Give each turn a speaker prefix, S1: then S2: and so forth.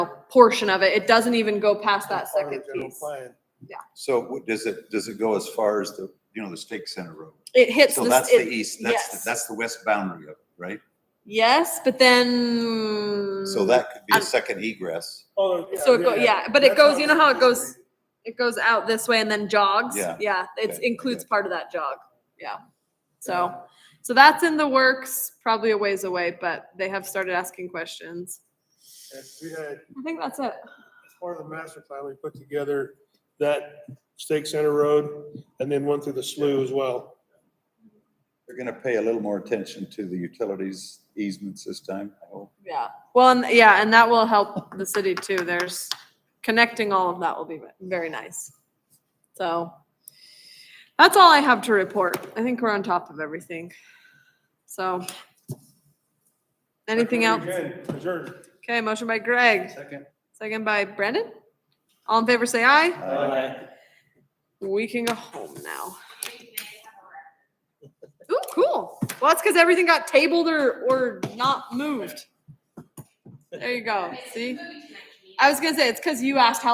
S1: portion of it. It doesn't even go past that
S2: Part of the
S1: second
S2: general
S1: piece.
S2: plan.
S3: So what- does it, does it go as far as the, you know, the Stake Center Road?
S1: It hits
S3: So
S1: this-
S3: that's the
S1: it-
S3: east, that's,
S1: yes.
S3: the- that's the west boundary of, it, right?
S1: Yes, but then.
S3: So that could be
S1: Mm-hmm.
S3: a
S1: I'm-
S3: second egress.
S2: Oh, yeah,
S1: So it go- yeah, but it
S2: That's
S1: goes-
S2: how
S1: you know how it
S2: it's
S1: goes-
S2: originated.
S1: It goes out this way and then jogs.
S3: Yeah.
S1: Yeah, it
S3: Okay,
S1: includes
S3: okay.
S1: part of that jog. Yeah. So, so that's in the works, probably a ways away, but they have started asking questions.
S2: And We had,
S1: I think that's it.
S2: as part of the master plan, we put together that Stake Center Road and then one through the slough as well.
S3: They're gonna pay a little more attention to the utilities easements this time, I hope.
S1: Yeah. Well, and yeah, and that will help the city too. There's connecting all of that will be ve- very nice. So that's all I have to report. I think we're on top of everything. So anything else?
S2: Adjourned.
S1: Okay, motion by Greg. Second. Second by Brandon. All in favor, say aye. We can go home now. Ooh, cool. Well, that's because everything got tabled or, or not moved. There you go, see? I was gonna say, it's because you asked how